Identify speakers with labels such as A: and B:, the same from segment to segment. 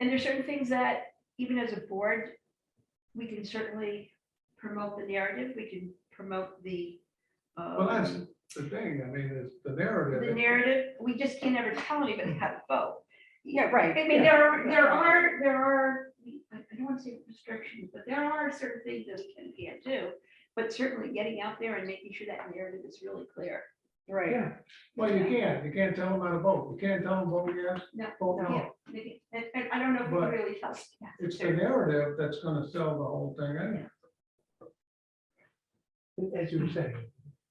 A: And there's certain things that, even as a board, we can certainly promote the narrative, we can promote the. um,
B: Well, that's the thing, I mean, it's the narrative.
A: The narrative, we just can never tell anybody how to vote.
C: Yeah, right.
A: I mean, there are, there are, there are, I I don't want to say restrictions, but there are certain things that we can, can't do. But certainly getting out there and making sure that narrative is really clear.
C: Right.
B: Yeah, well, you can't, you can't tell them how to vote, you can't tell them vote yes,
A: No,
B: vote
A: yeah,
B: no.
A: maybe- And, and I don't know if
B: But
A: it really helps. yeah,
B: It's the
A: there-
B: narrative that's gonna sell the whole thing, anyway.
D: As you were saying,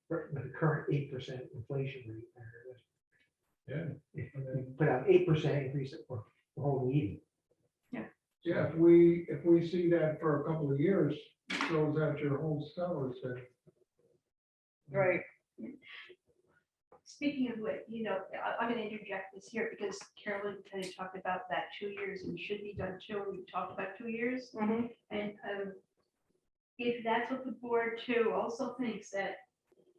D: for- with the current eight percent inflation rate, uh,
B: And then,
D: you put out eight percent increase it for the whole meeting.
B: Yeah, if we, if we see that for a couple of years, throws out your whole sellers then.
C: Right.
A: Speaking of which, you know, I, I'm gonna interject this here because Carolyn kind of talked about that two years and should be done too. and We talked about two years.
C: Mhm.
A: And um, if that's what the board too also thinks that,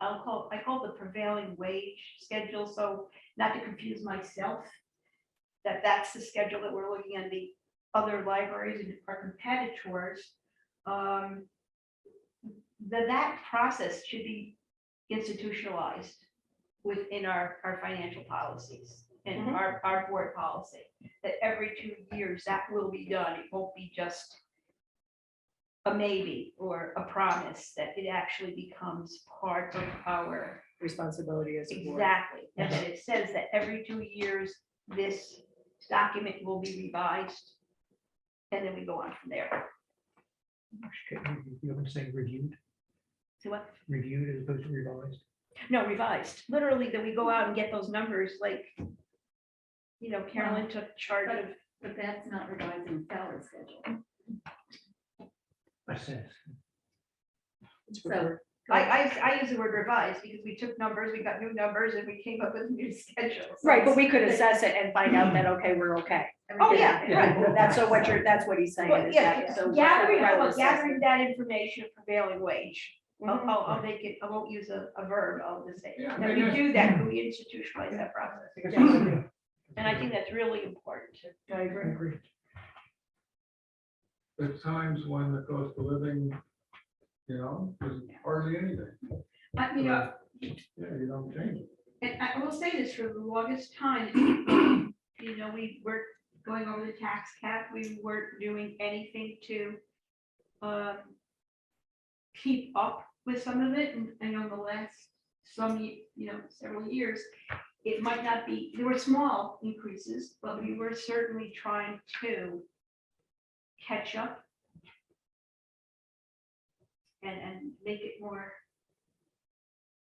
A: I'll call, I call it the prevailing wage schedule, so not to confuse myself, that that's the schedule that we're looking at the other libraries and our competitors. um, That that process should be institutionalized within our, our financial policies and
C: Mhm.
A: our, our board policy. That every two years that will be done. It won't be just a maybe or a promise that it actually becomes part of our,
C: Responsibility as a board.
A: exactly. And that it says that every two years, this document will be revised. And then we go on from there.
D: You know, I'm saying reviewed,
A: So what,
D: reviewed as opposed to revised.
A: no, revised, literally that we go out and get those numbers like, you know, Carolyn took charge of,
E: But that's not revising salary schedule.
D: I sense.
E: So
A: I, I, I use the word revised because we took numbers, we got new numbers and we came up with new schedules.
C: Right, but we could assess it and find out that, okay, we're okay.
A: Oh, yeah,
D: Yeah.
C: Right, that's so what you're, that's what he's saying.
A: Well,
C: is
A: yeah,
C: that- so what's that
A: Gathering,
C: rather
A: well,
C: assess-
A: gathering that information of prevailing wage. I'll,
C: Mhm.
A: I'll, I'll make it, I won't use a, a verb, I'll just say,
B: Yeah, I
A: that we
B: mean, that's-
A: do that, we institutionalize that process.
D: I think that's a good idea.
A: And I think that's really important to. I
D: I agree.
B: There's times when the cost of living, you know, is hardly anything.
A: you know,
B: Yeah, you don't change it.
A: and I will say this for the longest time, you know, we were going over the tax cap, we weren't doing anything to um, keep up with some of it, and I know the last, some, ye- you know, several years, it might not be, there were small increases, but we were certainly trying to catch up and, and make it more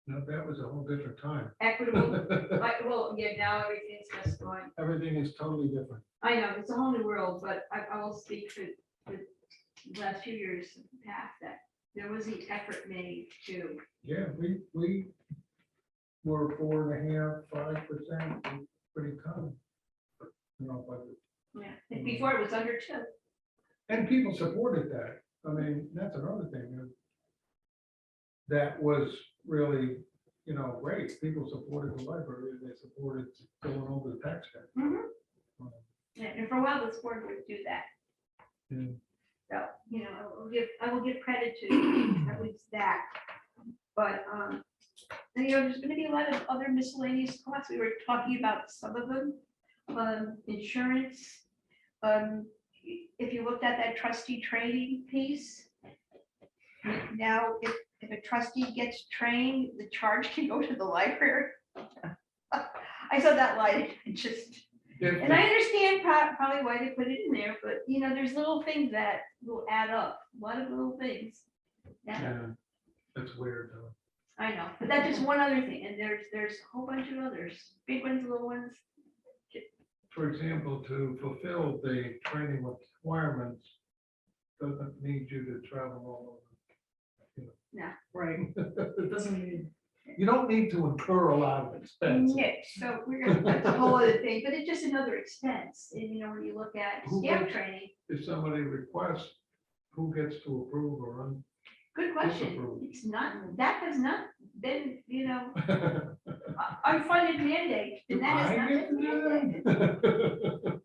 B: No, that was a whole different time.
A: equitable. Like, well, yeah, now everything's just going,
B: Everything is totally different.
A: I know, it's a whole new world, but I, I will speak for the last few years past that there was an effort made to
B: Yeah, we, we were four and a half, five percent, pretty common. You know, but,
A: Yeah, and before it was under two.
B: and people supported that. I mean, that's another thing. you know, That was really, you know, great. People supported the library, and they supported going over the tax cap.
A: And and for a while, this board would do that.
B: Mm.
A: So, you know, I will give, I will give credit to at least that. But, um, and, you know, there's gonna be a lot of other miscellaneous costs. We were talking about some of them. Um, insurance. Um, if you looked at that trustee training piece. Now, if, if a trustee gets trained, the charge can go to the library. I saw that line, it just.
B: If
A: And I understand pro- probably why they put it in there, but you know, there's little things that will add up, a lot of little things. Yeah,
B: Yeah, That's weird, though.
A: I know, but that's just one other thing, and there's, there's a whole bunch of others, big ones, little ones.
B: For example, to fulfill the training requirements, doesn't need you to travel all
C: Right.
B: over.
E: it doesn't mean
B: You don't need to incur a lot of expense.
A: Yeah, so we're gonna, that's a whole other thing, but it's just another expense, and you know, when you look at
B: Who
A: staff
B: wants-
A: training,
B: If somebody requests, who gets to approve or un?
A: good question.
B: Disapprove.
A: It's not, that has not been, you know, a- unfunded mandate, and that has
B: I
A: not
B: get
A: been mandated.
B: that.